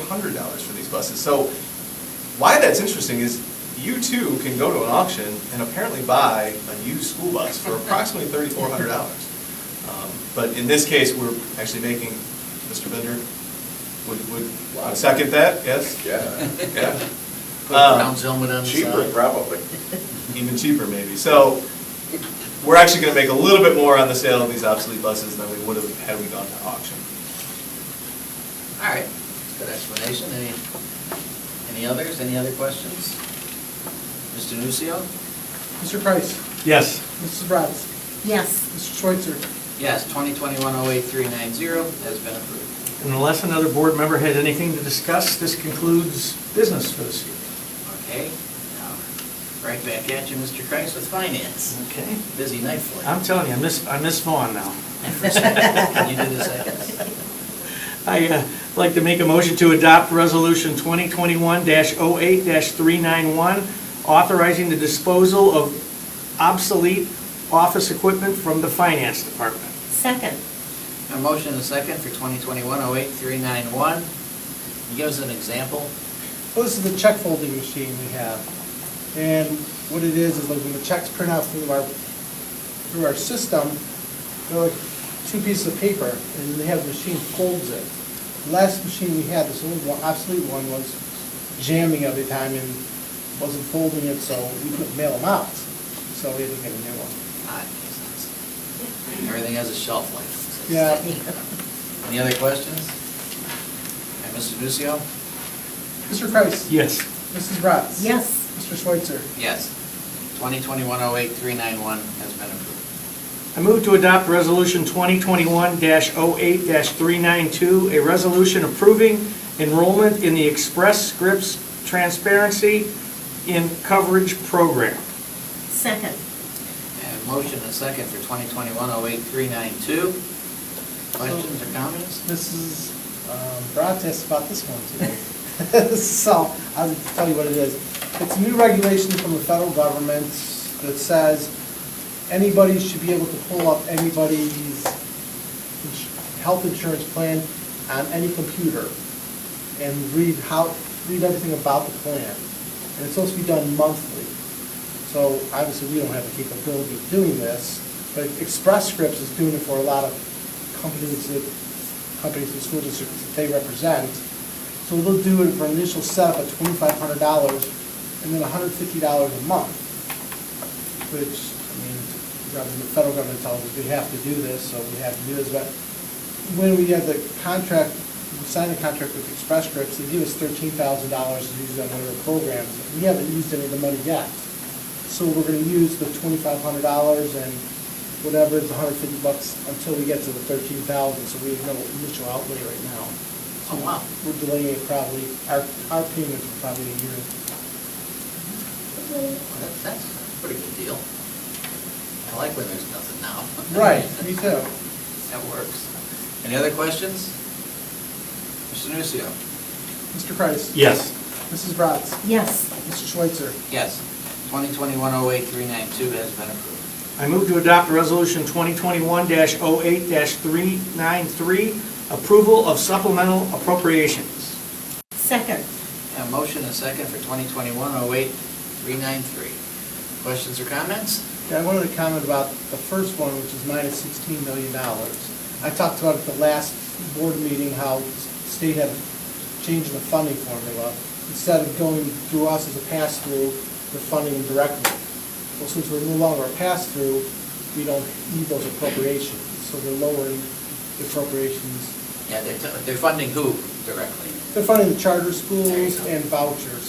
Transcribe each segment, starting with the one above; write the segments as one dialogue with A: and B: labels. A: hundred dollars for these buses. So why that's interesting is you too can go to an auction and apparently buy a used school bus for approximately thirty-four hundred dollars. Um, But in this case, we're actually making, Mr. Bender would, would would second that, yes?
B: Yeah. Uh,
A: Yeah. Um,
C: Put a brown helmet on the
B: Cheaper,
C: side.
B: probably.
A: even cheaper maybe. So we're actually going to make a little bit more on the sale of these obsolete buses than we would have had we gone to auction.
C: All right, good explanation. Any, any others, any other questions? Mr. Nucio?
D: Mr. Kreis.
E: Yes.
D: Mrs. Bratz.
F: Yes.
D: Mr. Schweitzer.
C: Yes, 2021-08390 has been approved.
E: And Unless another board member has anything to discuss, this concludes business for this year.
C: Okay, now, right back at you, Mr. Kreis with finance.
E: Okay.
C: Busy night for you.
E: I'm telling you, I miss, I miss Vaughn now.
C: Can you do the seconds?
E: I'd uh, like to make a motion to adopt Resolution 2021-08-391, authorizing the disposal of obsolete office equipment from the Finance Department.
F: Second.
C: A motion and a second for 2021-08391. Can you give us an example?
D: Well, this is the check folding machine we have. And what it is, is like when the checks print out through our, through our system, they're like two pieces of paper, and they have the machine folds it. The Last machine we had, this old one, obsolete one, was jamming every time and wasn't folding it, so we couldn't mail them out. So we had to get a new one.
C: Ah, it makes sense. Everything has a shelf life.
D: Yeah.
C: Any other questions? And Mr. Nucio?
D: Mr. Kreis.
E: Yes.
D: Mrs. Bratz.
F: Yes.
D: Mr. Schweitzer.
C: Yes. 2021-08391 has been approved.
E: I move to adopt Resolution 2021-08-392, a resolution approving enrollment in the Express Scripts Transparency in Coverage Program.
F: Second.
C: And motion and second for 2021-08392. Questions or comments?
D: Mrs. um, Bratz asked about this one today. So I'll tell you what it is. It's a new regulation from the federal government that says anybody should be able to pull up anybody's ins- health insurance plan on any computer and read how, read everything about the plan. And it's supposed to be done monthly. So obviously, we don't have the capability of doing this, but Express Scripts is doing it for a lot of companies that, companies and school districts that they represent. So they'll do it for an initial setup of twenty-five hundred dollars and then hundred fifty dollars a month, which, I mean, the government- the federal government tells us we have to do this, so we have to do this, but when we have the contract, we sign the contract with Express Scripts, they give us thirteen thousand dollars to use on one of their programs. We haven't used any of the money yet. So we're gonna use the twenty-five hundred dollars and whatever is hundred fifty bucks until we get to the thirteen thousand, so we have no initial outlay right now.
C: Oh, wow.
D: We're delaying it probably, our, our payment for probably a year.
C: Well, that- That's a pretty good deal. I like when there's nothing now.
D: Me too.
C: That works. Any other questions? Mr. Nucio?
D: Mr. Kreis.
E: Yes.
D: Mrs. Bratz.
F: Yes.
D: Mr. Schweitzer.
C: Yes. 2021-08392 has been approved.
E: I move to adopt Resolution 2021-08-393, approval of supplemental appropriations.
F: Second.
C: A motion and second for 2021-08393. Questions or comments?
D: Yeah, I wanted to comment about the first one, which is minus sixteen million dollars. I talked about at the last board meeting how state had changed the funding formula. Instead of going through us as a pass-through, they're funding them directly. Well, since we're no longer a pass-through, we don't need those appropriations, so they're lowering the appropriations.
C: Yeah, they're, they're funding who directly?
D: They're funding the charter
C: There you
D: schools
C: go.
D: and vouchers.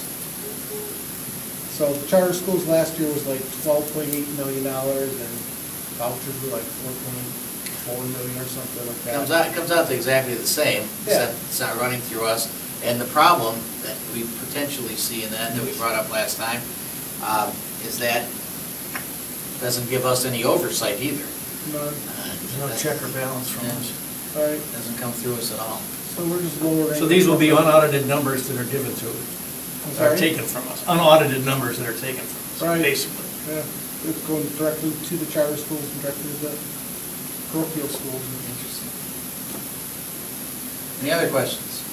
D: So the charter schools last year was like twelve point eight million dollars, and vouchers were like four point four million or something like that.
C: Comes out, comes out to exactly the same, except it's not running through us. And the problem that we potentially see in that, that we brought up last time, um, is that doesn't give us any oversight either.
D: No,
E: There's no check or balance from us.
D: all right,
C: Doesn't come through us at all.
D: so we're just lowering.
E: So these will be unaudited numbers that are given to,
D: I'm
E: are
D: sorry?
E: taken from us, unaudited numbers that are taken from us,
D: Right.
E: basically.
D: Yeah, it's going directly to the charter schools and directly to the parochial schools.
C: Interesting. Any other questions?